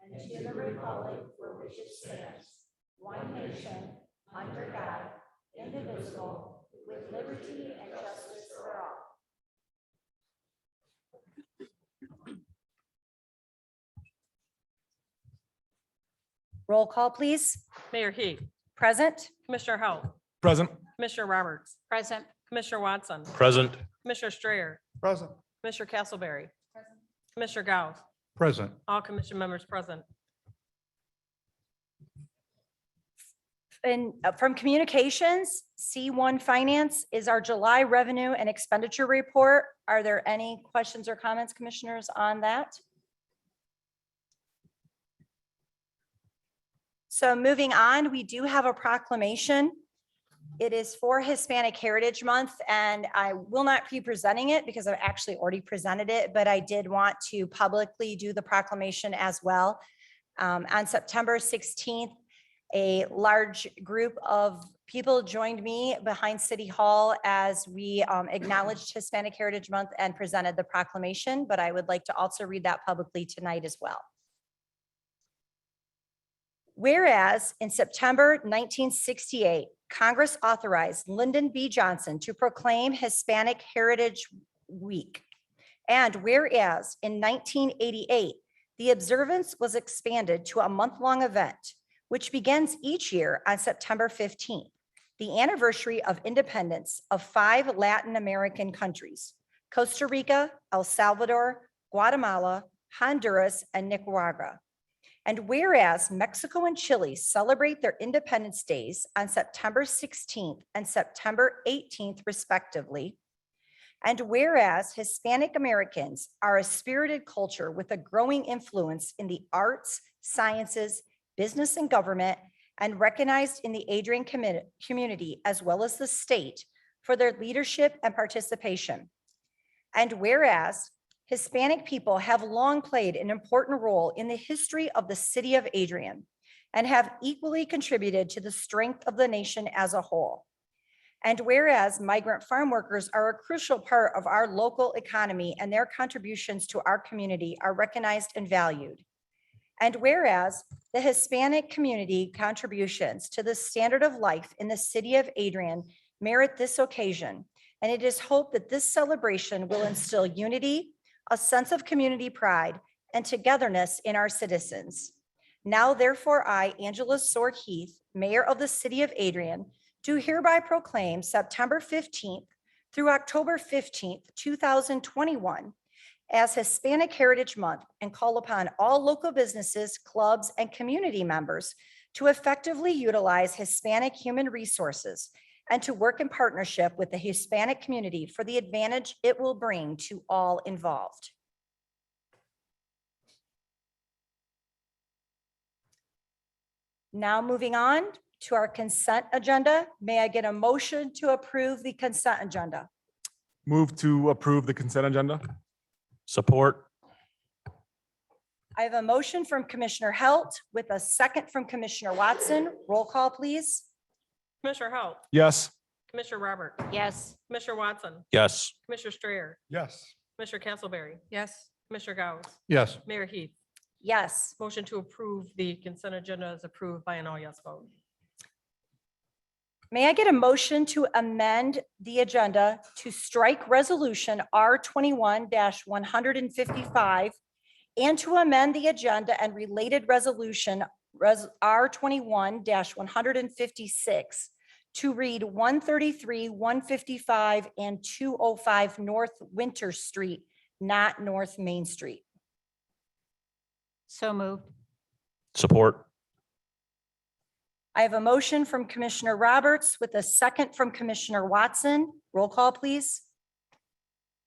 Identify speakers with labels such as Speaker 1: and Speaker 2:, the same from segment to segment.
Speaker 1: and to the republic for which it stands, one nation, under God, indivisible, with liberty and justice for all.
Speaker 2: Roll call, please.
Speaker 3: Mayor Heath,
Speaker 2: Present?
Speaker 3: Commissioner Hou,
Speaker 4: Present.
Speaker 3: Commissioner Roberts,
Speaker 2: Present.
Speaker 3: Commissioner Watson,
Speaker 4: Present.
Speaker 3: Commissioner Strayer,
Speaker 4: Present.
Speaker 3: Commissioner Castleberry, Commissioner Gauss,
Speaker 4: Present.
Speaker 3: all commission members present.
Speaker 2: And uh, from Communications, C1 Finance is our July revenue and expenditure report. Are there any questions or comments, commissioners, on that? So moving on, we do have a proclamation. It is for Hispanic Heritage Month, and I will not be presenting it because I've actually already presented it, but I did want to publicly do the proclamation as well. Um, On September 16th, a large group of people joined me behind City Hall as we um, acknowledged Hispanic Heritage Month and presented the proclamation, but I would like to also read that publicly tonight as well. Whereas in September 1968, Congress authorized Lyndon B. Johnson to proclaim Hispanic Heritage Week. And whereas in 1988, the observance was expanded to a month-long event which begins each year on September 15th, the anniversary of independence of five Latin American countries, Costa Rica, El Salvador, Guatemala, Honduras, and Nicaragua. And whereas Mexico and Chile celebrate their independence days on September 16th and September 18th respectively, and whereas Hispanic Americans are a spirited culture with a growing influence in the arts, sciences, business and government, and recognized in the Adrian commi- community as well as the state for their leadership and participation. And whereas Hispanic people have long played an important role in the history of the city of Adrian and have equally contributed to the strength of the nation as a whole. And whereas migrant farm workers are a crucial part of our local economy and their contributions to our community are recognized and valued. And whereas the Hispanic community contributions to the standard of life in the city of Adrian merit this occasion, and it is hoped that this celebration will instill unity, a sense of community pride, and togetherness in our citizens. Now therefore, I, Angela Sword Heath, Mayor of the City of Adrian, do hereby proclaim September 15th through October 15th, 2021, as Hispanic Heritage Month and call upon all local businesses, clubs, and community members to effectively utilize Hispanic human resources and to work in partnership with the Hispanic community for the advantage it will bring to all involved. Now moving on to our consent agenda, may I get a motion to approve the consent agenda?
Speaker 4: Move to approve the consent agenda.
Speaker 5: Support.
Speaker 2: I have a motion from Commissioner Halt with a second from Commissioner Watson. Roll call, please.
Speaker 3: Commissioner Hou,
Speaker 4: Yes.
Speaker 3: Commissioner Roberts,
Speaker 2: Yes.
Speaker 3: Commissioner Watson,
Speaker 5: Yes.
Speaker 3: Commissioner Strayer,
Speaker 4: Yes.
Speaker 3: Commissioner Castleberry,
Speaker 6: yes,
Speaker 3: Commissioner Gauss,
Speaker 4: Yes.
Speaker 3: Mayor Heath,
Speaker 2: Yes.
Speaker 3: motion to approve the consent agenda is approved by an all yes vote.
Speaker 2: May I get a motion to amend the agenda to strike Resolution R twenty-one one hundred and fifty-five and to amend the agenda and related resolution Res- R twenty-one one hundred and fifty-six to read one thirty-three, one fifty-five, and two oh five North Winter Street, not North Main Street?
Speaker 6: so moved,
Speaker 5: Support.
Speaker 2: I have a motion from Commissioner Roberts with a second from Commissioner Watson. Roll call, please.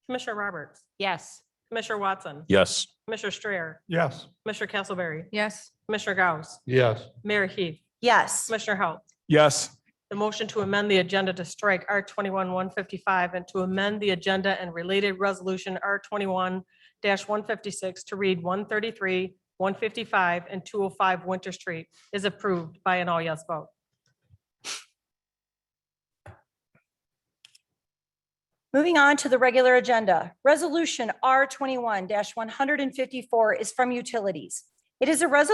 Speaker 3: Commissioner Roberts,
Speaker 6: yes,
Speaker 3: Commissioner Watson,
Speaker 5: Yes.
Speaker 3: Commissioner Strayer,
Speaker 4: Yes.
Speaker 3: Commissioner Castleberry,
Speaker 6: yes,
Speaker 3: Commissioner Gauss,
Speaker 4: Yes.
Speaker 3: Mayor Heath,
Speaker 2: Yes.
Speaker 3: Commissioner Hou,
Speaker 4: Yes.
Speaker 3: The motion to amend the agenda to strike R twenty-one one fifty-five and to amend the agenda and related resolution R twenty-one one fifty-six to read one thirty-three, one fifty-five, and two oh five Winter Street is approved by an all yes vote.
Speaker 2: Moving on to the regular agenda. Resolution R twenty-one one hundred and fifty-four is from Utilities. It is a resolution